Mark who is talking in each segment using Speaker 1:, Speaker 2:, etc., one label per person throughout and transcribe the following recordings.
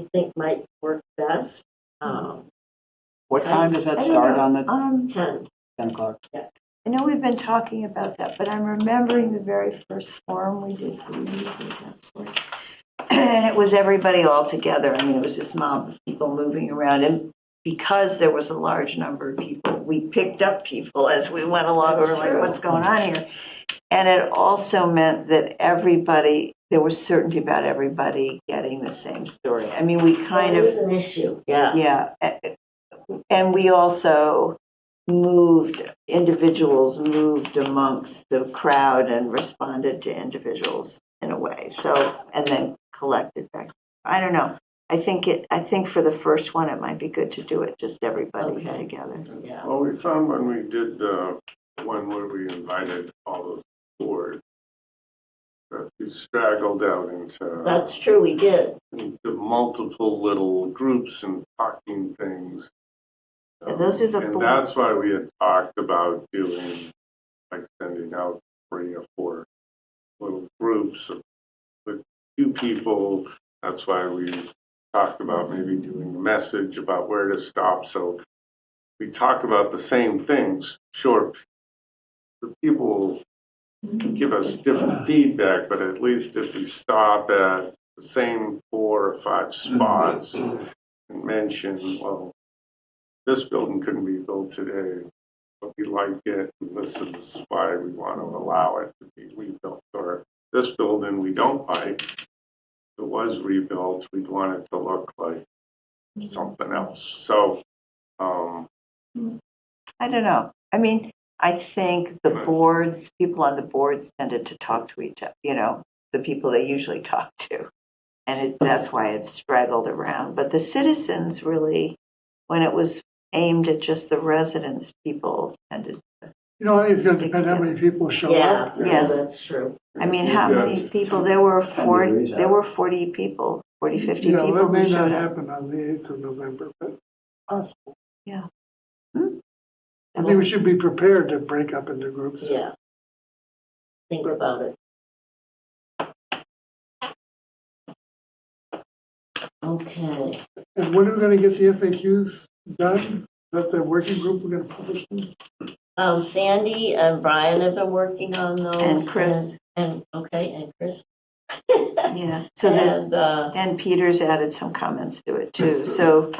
Speaker 1: you think might work best. Um,
Speaker 2: What time does that start on the
Speaker 1: Um, ten,
Speaker 2: 10 o'clock?
Speaker 3: I know we've been talking about that, but I'm remembering the very first forum we did for the Youth and Task Force. And it was everybody all together. I mean, it was this mob of people moving around. And because there was a large number of people, we picked up people as we went along. We were like,
Speaker 1: True.
Speaker 3: what's going on here? And it also meant that everybody, there was certainty about everybody getting the same story. I mean, we kind
Speaker 1: it
Speaker 3: of.
Speaker 1: is an issue, yeah.
Speaker 3: Yeah, a- and we also moved, individuals moved amongst the crowd and responded to individuals in a way, so, and then collected back. I don't know, I think it, I think for the first one, it might be good to do it, just everybody
Speaker 1: Okay.
Speaker 3: together.
Speaker 1: Yeah.
Speaker 4: Well, we found when we did the one where we invited all of the board, that we straggled out into
Speaker 1: That's true, we did.
Speaker 4: into multiple little groups and talking things.
Speaker 3: Yeah, those are the
Speaker 4: And
Speaker 3: board-
Speaker 4: that's why we had talked about doing, like sending out three or four little groups of- with two people. That's why we talked about maybe doing a message about where to stop. So we talk about the same things, sure. The people give us different feedback, but at least if we stop at the same four or five spots and mention, well, this building couldn't be built today, but we like it, and this is why we want to allow it to be rebuilt, or this building we don't like, if it was rebuilt, we'd want it to look like something else, so, um,
Speaker 3: I don't know, I mean, I think the
Speaker 4: Right.
Speaker 3: boards, people on the boards tended to talk to each other, you know, the people they usually talk to. And it, that's why it's straggled around, but the citizens really, when it was aimed at just the residents, people tended.
Speaker 5: You know, I think it's gonna depend how many people show
Speaker 1: Yeah,
Speaker 5: up.
Speaker 1: yeah,
Speaker 3: Yes.
Speaker 1: that's true.
Speaker 3: I mean, how many
Speaker 4: Yes.
Speaker 3: people, there were
Speaker 2: Ten
Speaker 3: forty,
Speaker 2: degrees
Speaker 3: there
Speaker 2: out.
Speaker 3: were forty people, 40, 50
Speaker 5: You know,
Speaker 3: people
Speaker 5: that
Speaker 3: who
Speaker 5: may not
Speaker 3: showed up.
Speaker 5: happen on the eighth of November, but possible.
Speaker 3: Yeah.
Speaker 5: Hmm? I think we should be prepared to break up into groups.
Speaker 1: Yeah. Think about it. Okay,
Speaker 5: And when are we gonna get the FAQs done? That the working group, we're gonna publish them?
Speaker 1: um, Sandy and Brian have been working on those.
Speaker 3: And Chris.
Speaker 1: And, and- okay, and Chris.
Speaker 3: Yeah, so that,
Speaker 1: And, uh,
Speaker 3: and Peters added some comments to it too, so,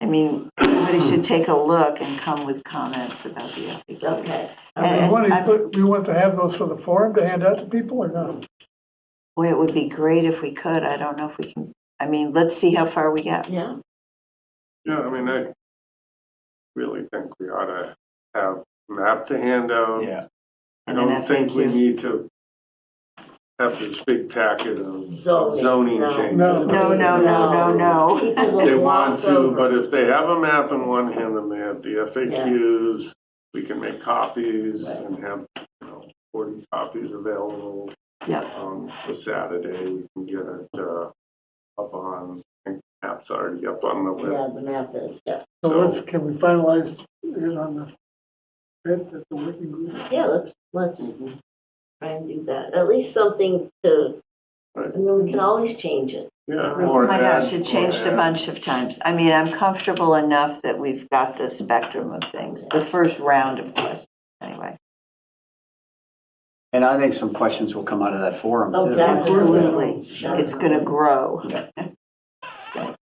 Speaker 3: I mean, everybody should take a look and come with comments about the FAQ.
Speaker 1: okay,
Speaker 3: And-
Speaker 5: And we want
Speaker 3: and-
Speaker 5: to, put- we want to have those for the forum to hand out to people or not?
Speaker 3: Boy, it would be great if we could. I don't know if we can. I mean, let's see how far we get.
Speaker 1: yeah.
Speaker 4: Yeah, I mean, I really think we ought to have a map to hand out.
Speaker 2: Yeah.
Speaker 4: I
Speaker 3: And an
Speaker 4: don't think we
Speaker 3: FAQ.
Speaker 4: need to have this big packet of
Speaker 1: Zoning,
Speaker 4: zoning
Speaker 1: no.
Speaker 4: changes.
Speaker 5: No.
Speaker 3: No, no, no, no,
Speaker 1: People
Speaker 3: no.
Speaker 1: will
Speaker 4: They want
Speaker 1: gloss
Speaker 4: to,
Speaker 1: over.
Speaker 4: but if they have a map in one hand and they have the FAQs, we can make copies
Speaker 1: Right.
Speaker 4: and have, you know, forty copies available.
Speaker 3: Yep.
Speaker 4: Um, for Saturday, we can get it, uh, up on, I think maps already up on the web.
Speaker 1: Yeah, the map is, yeah.
Speaker 5: So let's, can we finalize it on the fifth at the working group?
Speaker 1: Yeah, let's, let's
Speaker 4: Mhm.
Speaker 1: try and do that. At least something to,
Speaker 4: Right.
Speaker 1: I mean, we can always change it.
Speaker 4: Yeah.
Speaker 1: Oh
Speaker 3: Oh my gosh, it changed a bunch of times. I mean, I'm comfortable enough that we've got the spectrum of things, the first round of questions, anyway.
Speaker 2: And I think some questions will come out of that forum too.
Speaker 1: Okay.
Speaker 3: Absolutely.
Speaker 1: Sure.
Speaker 3: It's going to grow.
Speaker 2: Yeah.
Speaker 3: It's gonna-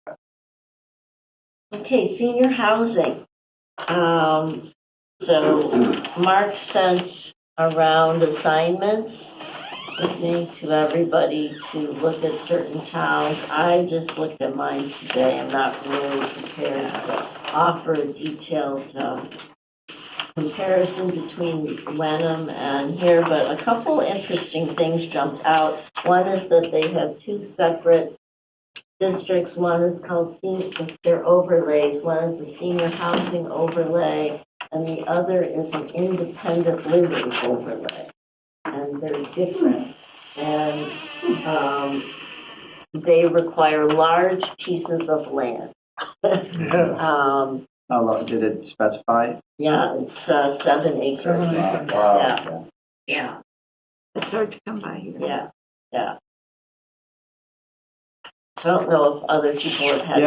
Speaker 1: Okay, senior housing. Um, so Mark sent around assignments with me to everybody to look at certain towns. I just looked at mine today. I'm not really prepared to offer a detailed, um, comparison between Wenham and here, but a couple interesting things jumped out. One is that they have two separate districts, one is called senior, they're overlays, one is a senior housing overlay, and the other is an independent living overlay. And they're different, and, um, they require large pieces of land.
Speaker 3: Uh,
Speaker 5: Yes.
Speaker 1: Um,
Speaker 2: How long uh, did it specify?
Speaker 1: yeah, it's uh, seven acres,
Speaker 5: Seven
Speaker 2: Wow,
Speaker 5: acres.
Speaker 2: wow,
Speaker 1: yeah,
Speaker 3: It's hard to come by here.
Speaker 1: yeah, yeah. I don't know if other people have had